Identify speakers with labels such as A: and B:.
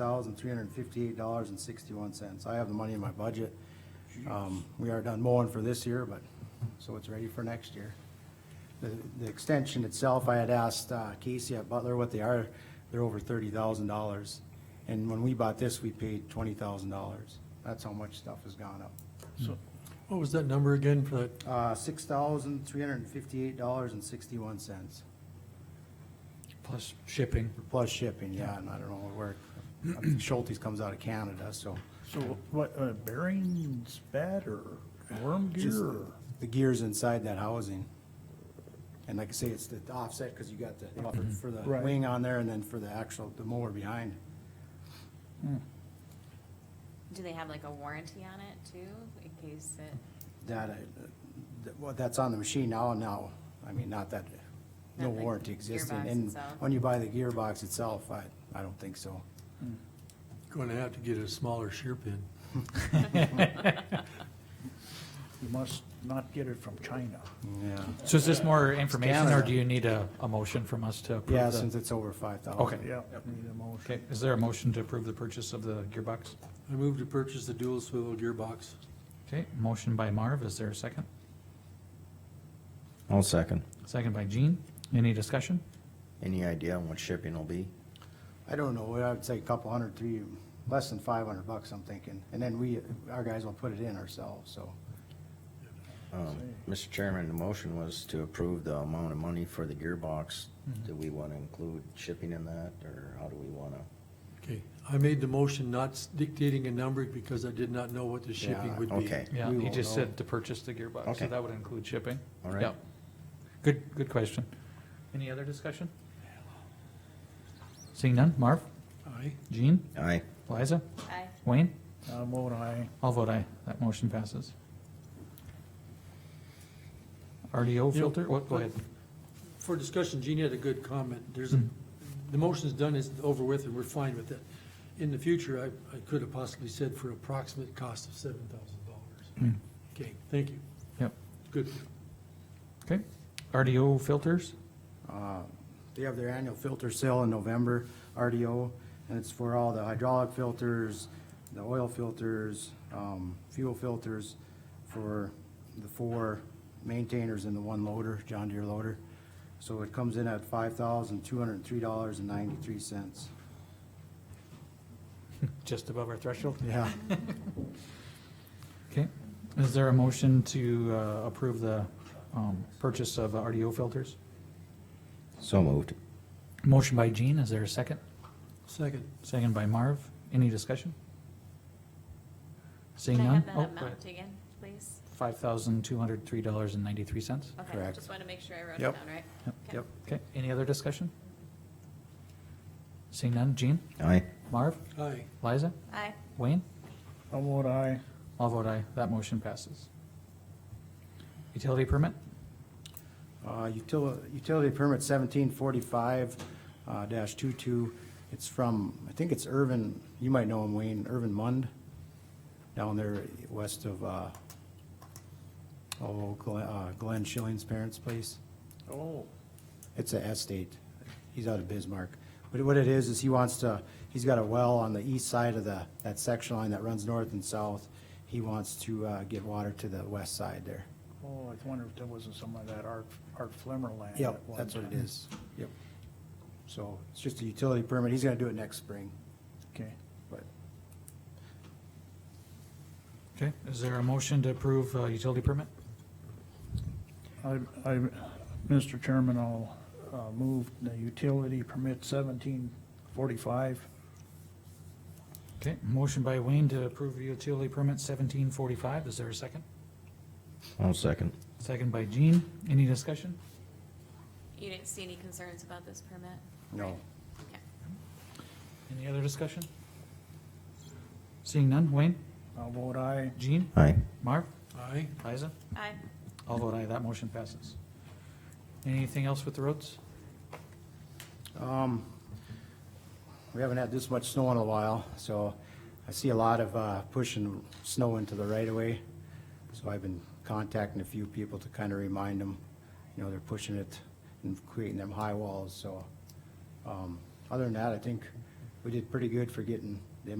A: thousand, three hundred and fifty-eight dollars and sixty-one cents. I have the money in my budget. Um, we are done mowing for this year, but, so it's ready for next year. The, the extension itself, I had asked uh, Casey at Butler what they are, they're over thirty thousand dollars. And when we bought this, we paid twenty thousand dollars. That's how much stuff has gone up.
B: So, what was that number again for that?
A: Uh, six thousand, three hundred and fifty-eight dollars and sixty-one cents,
B: Plus shipping.
A: plus shipping, yeah, and I don't know where, uh, Schulte's comes out of Canada, so.
C: So what, uh, bearings bad or worm
A: Just
C: gear or?
A: The gears inside that housing. And like I say, it's the offset, cause you got the, buffer for the
C: Right.
A: wing on there and then for the actual, the mower behind.
D: Do they have like a warranty on it too, in case it,
A: That, I- that- well, that's on the machine now and now, I mean, not that, no
D: Not the
A: warranty existing,
D: gearbox
A: and
D: itself.
A: when you buy the gearbox itself, I, I don't think so.
B: Going to have to get a smaller shear pin.
C: You must not get it from China.
A: Yeah,
E: So is this more information, or
A: Canada.
E: do you need a, a motion from us to approve?
A: yeah,
E: the-
A: since it's over five thousand.
E: Okay.
C: Yeah, need a motion.
E: Okay, is there a motion to approve the purchase of the gearbox?
B: I moved to purchase the dual swivel gearbox.
E: Okay, motion by Marv, is there a second?
F: I'll second.
E: Second by Gene, any discussion?
F: Any idea on what shipping will be?
A: I don't know, I would say a couple hundred, three, less than five hundred bucks, I'm thinking, and then we, our guys will put it in ourselves, so.
F: Um, Mr. Chairman, the motion was to approve the amount of money for the gearbox. Do we want to include shipping in that, or how do we want to?
B: Okay, I made the motion not dictating a number because I did not know what the shipping
A: Yeah,
B: would be.
F: okay.
E: Yeah,
A: We
E: he
A: won't
E: just
A: know.
E: said to purchase the gearbox, so
F: Okay.
E: that would include shipping.
F: All right.
E: Yep. Good, good question. Any other discussion? Seeing none, Marv,
B: Aye.
E: Gene,
F: Aye.
E: Liza,
D: I,
E: Wayne,
C: Uh, i vote aye.
E: I'll vote aye, that motion passes. RDO
B: You know,
E: filter, what, go ahead.
B: For discussion, Gene had a good comment. There's a,
E: Hmm.
B: the motion's done, it's over with, and we're fine with it. In the future, I, I could have possibly said for approximate cost of seven thousand dollars.
E: Hmm.
B: Okay, thank you.
E: Yep,
B: Good.
E: okay. RDO filters,
A: Uh, They have their annual filter sale in November, RDO, and it's for all the hydraulic filters, the oil filters, um, fuel filters for the four maintainers and the one loader, John Deere loader. So it comes in at five thousand, two hundred and three dollars and ninety-three cents.
E: just above our threshold.
A: Yeah.
E: Okay, is there a motion to uh, approve the um, purchase of RDO filters?
F: So moved.
E: Motion by Gene, is there a second?
B: Second.
E: Second by Marv, any discussion? Seeing
D: can I
E: none?
D: have that
E: Oh, go
D: amount again, please?
E: Five thousand two hundred three dollars and ninety-three cents.
D: Okay,
A: Correct.
D: just want to make sure I wrote it
A: Yep.
D: down right. Okay.
E: Yep. Okay, any other discussion? Seeing none, Gene,
F: Aye.
E: Marv,
B: Aye.
E: Liza,
D: Aye,
E: Wayne?
C: uh, i vote aye.
E: All vote aye, that motion passes. Utility permit?
A: Uh, util- Utility permit seventeen forty-five uh, dash two-two. It's from, I think it's Irvin, you might know him, Wayne, Irvin Mund, down there west of, uh, oh, Glen- uh, Glenn Schilling's parents' place.
C: Oh.
A: It's a estate. He's out of Bismarck. But what it is, is he wants to, he's got a well on the east side of the, that section line that runs north and south. He wants to uh, get water to the west side there.
C: Oh, I wonder if there wasn't some of that Art, Art Flemmer land.
A: Yep,
C: at one
A: that's what it
C: time.
A: is. Yep. So it's just a utility permit. He's gonna do it next spring,
C: Okay.
A: but
E: Okay, is there a motion to approve uh, utility permit?
C: I, I, Mr. Chairman, I'll, uh, move the utility permit seventeen forty-five.
E: Okay, motion by Wayne to approve utility permit seventeen forty-five, is there a second?
F: I'll second.
E: Second by Gene, any discussion?
D: you didn't see any concerns about this permit?
A: no.
D: Okay.
E: Any other discussion? Seeing none, Wayne,
C: I'll vote aye.
E: Gene,
F: Aye.
E: Marv,
B: Aye.
E: Liza,
D: Aye,
E: all vote aye, that motion passes. Anything else with the roads?
A: Um, we haven't had this much snow in a while, so I see a lot of, uh, pushing snow into the right of way. So I've been contacting a few people to kind of remind them, you know, they're pushing it and creating them high walls, so. Um, other than that, I think we did pretty good for getting the